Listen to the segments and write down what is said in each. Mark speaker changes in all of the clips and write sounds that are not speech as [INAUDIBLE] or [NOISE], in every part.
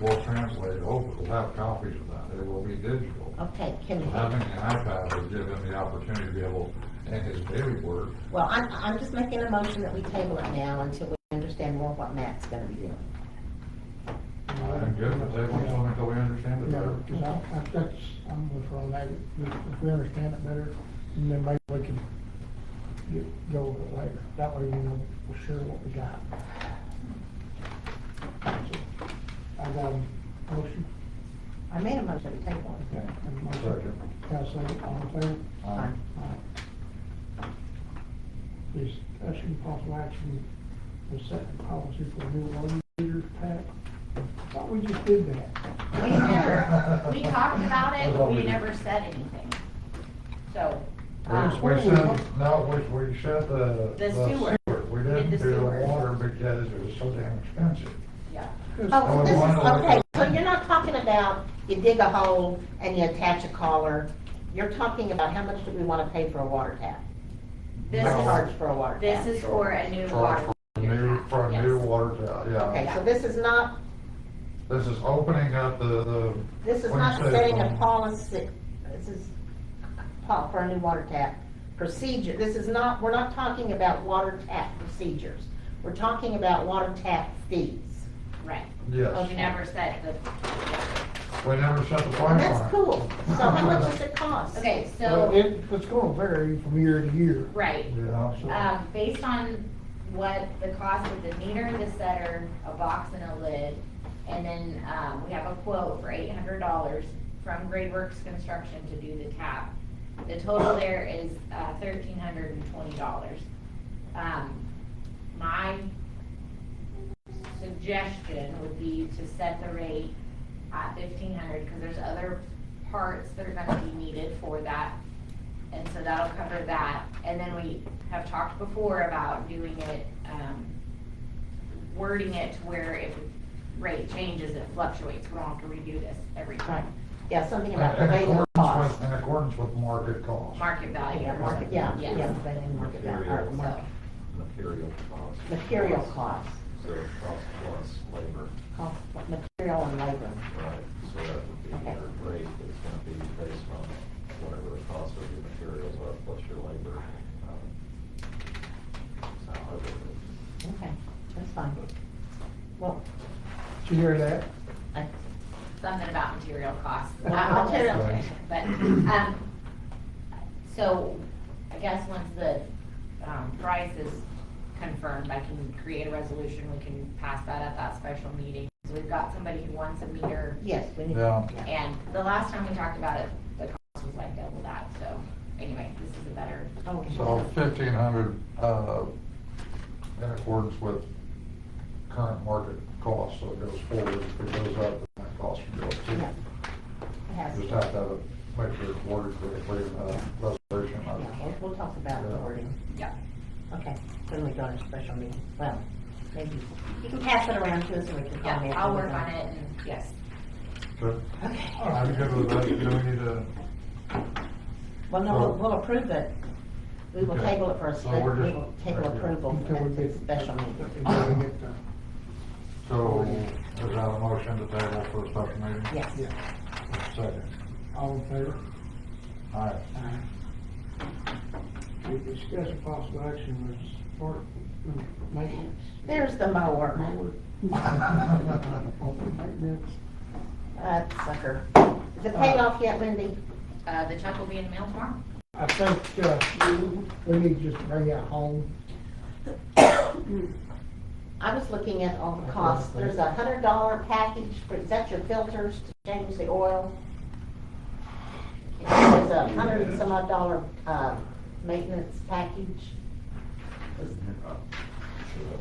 Speaker 1: we'll translate over, we'll have copies of that, it will be digital.
Speaker 2: Okay, can
Speaker 1: So
Speaker 2: you?
Speaker 1: Having an iPad would give him the opportunity to be able, in his daily work,
Speaker 2: Well, I'm, I'm just making a motion that we table it now until we understand more what Matt's gonna be doing.
Speaker 1: I'm good with that, we don't until we understand it better.
Speaker 3: No, because I, I, that's, I'm with Ron, I, if we understand it better, and then maybe we can get, go over it later. That way we know for sure what we got. So, I got a motion.
Speaker 2: I made a motion to table it.
Speaker 3: Okay, and a motion.
Speaker 1: Second.
Speaker 3: Got a second, all in favor?
Speaker 1: Aye.
Speaker 3: Aye. Discussion possible action, the second policy for new loan leader pack. Thought we just did that.
Speaker 4: We never, we talked about it, but we never said anything. So, um,
Speaker 1: We, we sent, no, we, we sent the,
Speaker 4: The
Speaker 1: the
Speaker 4: sewer.
Speaker 1: sewer, we
Speaker 4: Did
Speaker 1: didn't
Speaker 4: the
Speaker 1: do the
Speaker 4: sewer.
Speaker 1: water because it was so damn expensive.
Speaker 4: yeah,
Speaker 2: Oh, this
Speaker 1: Why
Speaker 2: is,
Speaker 1: not?
Speaker 2: okay, so you're not talking about you dig a hole and you attach a collar. You're talking about how much do we wanna pay for a water tap?
Speaker 4: this
Speaker 1: No.
Speaker 4: is,
Speaker 2: Charge for a water tap?
Speaker 4: this is for a new
Speaker 1: For,
Speaker 4: water.
Speaker 1: for a new, for a new water, tower, yeah.
Speaker 2: Okay, so this is not,
Speaker 1: This is opening up the, the.
Speaker 2: this is
Speaker 1: what do you
Speaker 2: not
Speaker 1: say,
Speaker 2: setting a
Speaker 1: Tom?
Speaker 2: policy, this is pol- for a new water tap procedure. This is not, we're not talking about water tap procedures. We're talking about water tap fees.
Speaker 4: Right,
Speaker 1: Yes.
Speaker 2: Oh,
Speaker 4: we never said the,
Speaker 1: We never set the
Speaker 2: And
Speaker 1: price on it.
Speaker 2: that's cool. So how much does it cost?
Speaker 4: okay,
Speaker 3: Well,
Speaker 4: so,
Speaker 3: it, it's gonna vary from year to year.
Speaker 4: right.
Speaker 1: Yeah, so.
Speaker 2: Uh,
Speaker 4: Um, based on what the cost of the meter, the setter, a box and a lid, and then, um, we have a quote for eight hundred dollars from Grade Works Construction to do the tap. The total there is, uh, thirteen hundred and twenty dollars. Um, my suggestion would be to set the rate at fifteen hundred, because there's other parts that are gonna be needed for that. And so that'll cover that, and then we have talked before about doing it, um, wording it to where if the rate changes, it fluctuates, we don't have to redo this every
Speaker 2: Right,
Speaker 4: time.
Speaker 2: yeah, something
Speaker 1: In
Speaker 2: about the rate
Speaker 1: accordance
Speaker 2: of cost.
Speaker 1: with, in accordance with market cost.
Speaker 4: Market value.
Speaker 2: Yeah, market, yeah,
Speaker 4: Yes.
Speaker 2: yeah, they didn't market value, or market,
Speaker 5: Material cost.
Speaker 2: material cost,
Speaker 5: So cost plus labor,
Speaker 2: cost, material and labor.
Speaker 5: right, so that would be
Speaker 2: Okay.
Speaker 5: your rate that's gonna be based on whatever the cost of your materials are plus your labor. um, So I would,
Speaker 2: Okay, that's fine. Well,
Speaker 3: Did you hear that?
Speaker 2: I,
Speaker 4: something about material costs.
Speaker 2: Well,
Speaker 4: I'll
Speaker 2: material
Speaker 4: listen. But, um, so I guess once the, um, price is confirmed, I can create a resolution, we can pass that at that special meeting. So we've got somebody who wants a meter,
Speaker 2: yes, we need.
Speaker 1: Yeah.
Speaker 4: and the last time we talked about it, the cost was like double that, so anyway, this is a better,
Speaker 2: Oh,
Speaker 1: So fifteen hundred, uh, in accordance with current market cost, so it goes forward, if it goes up, then that cost will go up
Speaker 2: Yeah.
Speaker 1: too.
Speaker 2: It has,
Speaker 1: Just
Speaker 2: yeah,
Speaker 1: have to have it, make sure it's worded correctly uh, in the resolution.
Speaker 2: we'll, we'll talk about the wording.
Speaker 4: yeah.
Speaker 2: Okay, then we go to special meeting. Well, maybe, you can pass it around to us and we can
Speaker 4: Yeah,
Speaker 2: comment.
Speaker 4: I'll work on it and, yes.
Speaker 1: Good.
Speaker 2: Okay.
Speaker 1: I'm good with that, do we need a?
Speaker 2: Well, no, we'll- we'll approve it. We will
Speaker 1: Okay.
Speaker 2: table it for a,
Speaker 1: So
Speaker 2: spe-
Speaker 1: we're
Speaker 2: we
Speaker 1: just-
Speaker 2: will table
Speaker 1: right, yeah.
Speaker 2: approval
Speaker 3: Until
Speaker 2: for
Speaker 3: we
Speaker 2: the
Speaker 3: get-
Speaker 2: special meeting.
Speaker 3: Until we get the,
Speaker 1: So, is that a motion to table for a special meeting?
Speaker 2: Yes.
Speaker 3: yeah,
Speaker 1: Second.
Speaker 3: all in favor?
Speaker 1: All right.
Speaker 3: Aye. We discuss a possible action with support, mm, maintenance. [LAUGHS]
Speaker 2: There's the mower.
Speaker 3: Mower. Open maintenance.
Speaker 2: That Uh, sucker. Is
Speaker 1: Uh,
Speaker 2: it paid off yet, Lindy?
Speaker 4: Uh, the check will be in the mail tomorrow?
Speaker 3: I think, uh, we need to just bring it home.
Speaker 2: I was looking at all the costs. There's a hundred dollar package for, is that your filters to change the oil? There's a hundred and some odd dollar, uh, maintenance package.
Speaker 5: should have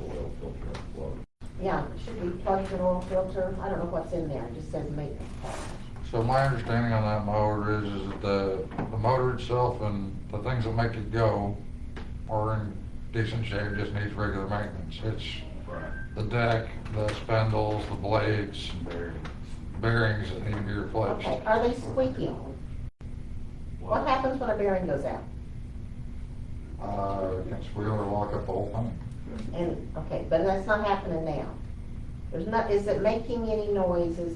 Speaker 5: oil filter upload.
Speaker 2: Yeah, should we plug the oil filter? I don't know what's in there. It just says maintenance package.
Speaker 1: So my understanding on that mower is, is that the, the motor itself and the things that make it go are in decent shape, just needs regular maintenance. It's
Speaker 5: Right.
Speaker 1: the deck, the spindles, the blades,
Speaker 5: Bearing.
Speaker 1: bearings that need to be replaced.
Speaker 2: Okay, are they squeaking? What happens when a bearing goes out?
Speaker 1: Uh, can squeal or lock up the whole thing.
Speaker 2: And, okay, but that's not happening now. There's not, is it making any noises?